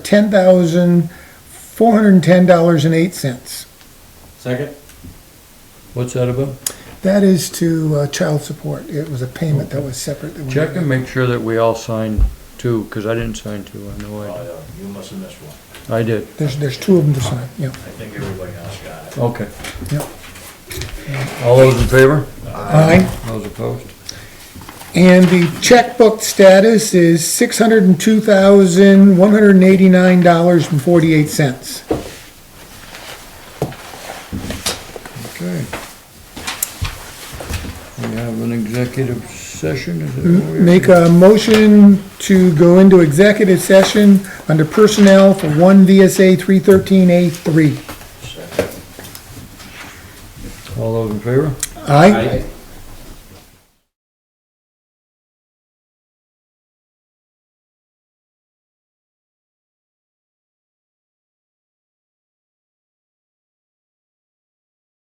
ten thousand four hundred and ten dollars and eight cents. Second? What's that about? That is to uh, child support. It was a payment that was separate. that we Check and made. make sure that we all signed two, because I didn't sign two, I know I, Oh, yeah, you must have missed one. I did. There's, there's two of them to sign, yeah. I think everybody else got it. Okay. Yep. All those in favor? Aye. Those opposed? And the checkbook status is six hundred and two thousand, one hundred and eighty-nine dollars and forty-eight cents. Okay. We have an executive session, is it? what we- Make a motion to go into executive session under personnel for one VSA three thirteen A three. Second. All those in favor? Aye?